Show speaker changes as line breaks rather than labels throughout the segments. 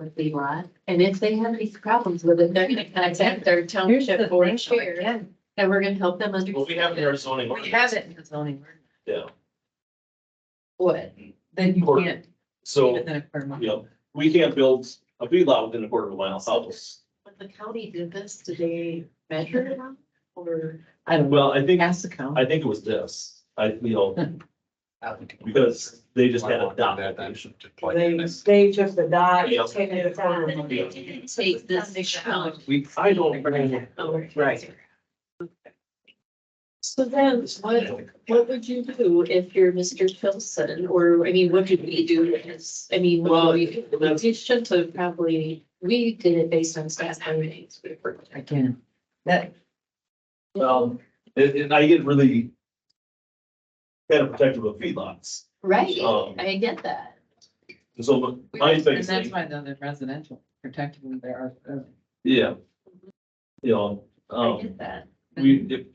with Leroy. And if they have these problems with it, they're gonna contact their
Here's the
township board
thing,
of
Chair.
chair. And we're gonna help them understand.
Well, we have in our zoning.
We have it in the zoning ordinance.
Yeah,
What? Then you
Or-
can't.
so,
Within a quarter mile.
you know, we can't build a feedlot within a quarter of a mile of house.
When the county did this, did they measure it out or?
I don't know.
Well, I think,
Has to count.
I think it was this, I, you know, because they just had a dot. location.
They, they just adopt.
Yeah.
They didn't Take this challenge.
We, I don't. know.
Right.
So then what, what would you do if you're Mr. Filson, or, I mean, what did we do as, I mean, well, we we should have probably, we did it based on staff findings.
I can. That,
Um, and, and I get really kind of protective of feedlots,
Right,
Um,
I get that.
And so my
and
biggest
that's
thing,
why the the residential protectively there are. uh,
yeah. You know,
I
um,
get that.
we, if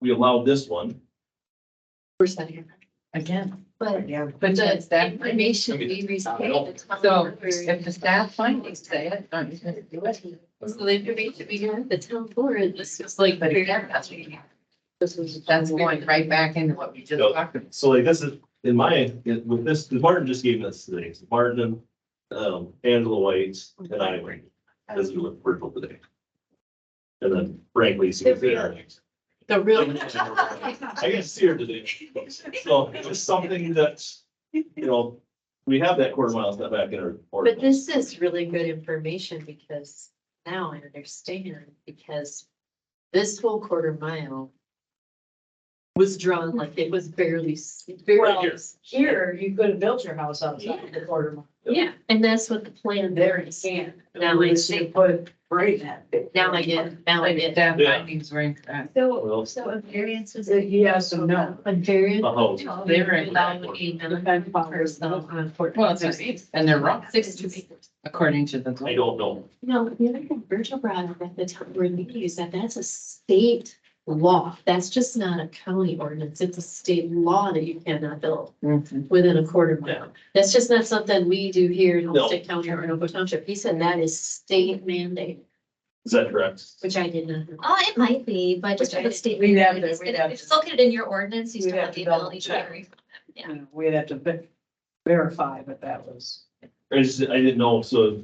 we allow this one,
We're saying,
Again.
but
Yeah.
But
the
that's that.
information we received.
So if the staff findings say it, don't you think do it?
So the information we got, at the town board, this was like.
But again, that's what you have.
This was-
That's going right back into what we just
Yeah.
talked about.
so like this is, in my, with this, 'cause Martin just gave us the names, Martin, um, Angela White, and I were, as we look virtual today. And then Frank Lacy was there.
The real.
I got to see her today. So it was something that, you know, we have that quarter mile step back in our.
But this is really good information because now I understand, because this whole quarter mile was drawn like it was barely, s-
Right
barely.
here.
Here, you could have built your house outside the quarter mile.
Yeah, and that's what the plan
There
there
you
is.
can.
Now I see.
Put right in that. big-
Now I get, now I
Like if
get.
staff
Yeah.
findings uh, were incorrect.
Well-
So, so a variance was.
Uh, Yes and no.
A very.
Oh.
They were in- Well, it's just- and they're wrong.
Six to eight.
According to the.
I don't know.
No, the other thing Virgil brought up at the time we're meeting is that that's a state law. That's just not a county ordinance. It's a state law that you cannot build
Mhm.
within a quarter
Yeah.
mile. That's just not something we do here in
No.
Homestead County or in Oco Township. He said that is state mandate,
Is that correct?
which I did not know.
Oh, it might be, but just for the state.
We'd have to-
it's-
we'd have
If it's located in your ordinance, you
We'd
still
have
have
to
the
double
ability to
check.
vary. Yeah.
And We'd have to ve- verify, but that was.
I just, I didn't know, so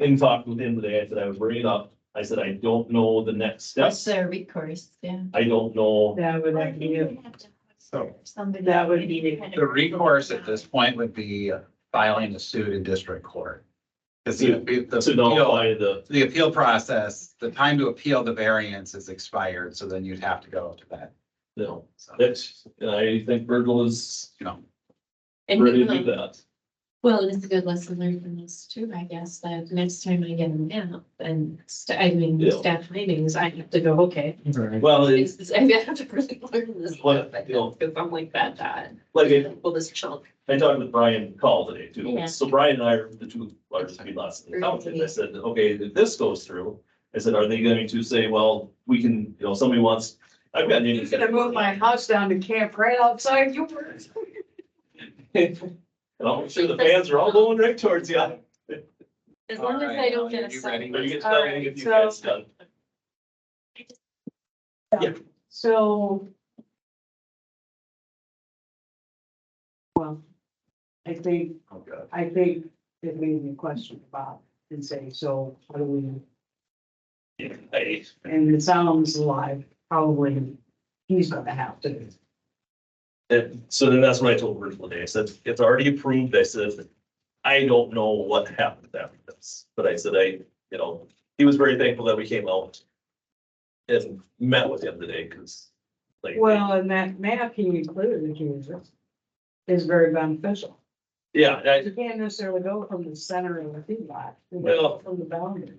in talk with him today, I said I would bring it up. I said, I don't know the next steps.
their recourse, yeah.
I don't know.
That would
Or
have
you
been.
would have to have
So-
somebody-
That would be-
The recourse at this point would be filing a suit in district court. Because the, the
To
appeal,
notify the,
the appeal process, the time to appeal the variance is expired, so then you'd have to go to that.
you know,
So,
that's, I think Virgil is
you know,
And
ready to
um,
do that.
Well, it's a good lesson learned from this too, I guess, that next time I get them out and st- I mean,
Yeah.
staff meetings, I have to go, okay.
Mm-hmm.
Well, it's
This is, I have to really learn this.
Well,
stuff, I
you know-
guess, Cause I'm like that, that.
like, I-
Well, this chunk.
I talked with Brian Call today too.
Yeah.
So Brian and I are the two largest feedlots in the township. I said, okay, if this goes through, I said, are they going to say, well, we can, you know, somebody wants, I've got.
You're gonna move my house down to camp right outside yours.
And I'm sure the fans are all going right towards you. Are
As
All
long as I
right,
don't
Ellie,
get
are
a
you
second.
you getting
All
done?
right,
If you guys
so-
done.
So. Well, I think,
oh, good.
I think it made me question about and say, so how do we?
Hey,
And it sounds like probably he's gonna have to.
And so then that's what I told Virgil today. I said, it's already approved. I said, I don't know what happened after this, but I said, I, you know, he was very thankful that we came out. And met with him today, cause like.
Well, and that map he included, if he was, is very beneficial.
Yeah, I,
You can't necessarily go from the center of the feedlot, you can
Well-
go from the boundary.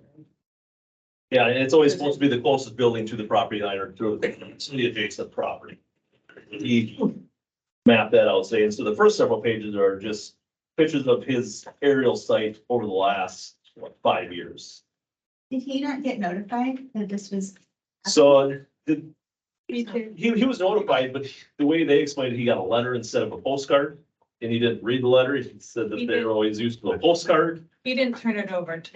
yeah, and it's always supposed to be the closest building to the property line or to to the adjacent property. He mapped that out, saying, so the first several pages are just pictures of his aerial site over the last, what, five years.
Did he not get notified that this was?
So the, he, he was notified, but the way they explained it, he got a letter instead of a postcard. and he didn't read the letter, he said that
He
they
did.
were always used to a postcard.
He didn't turn it over until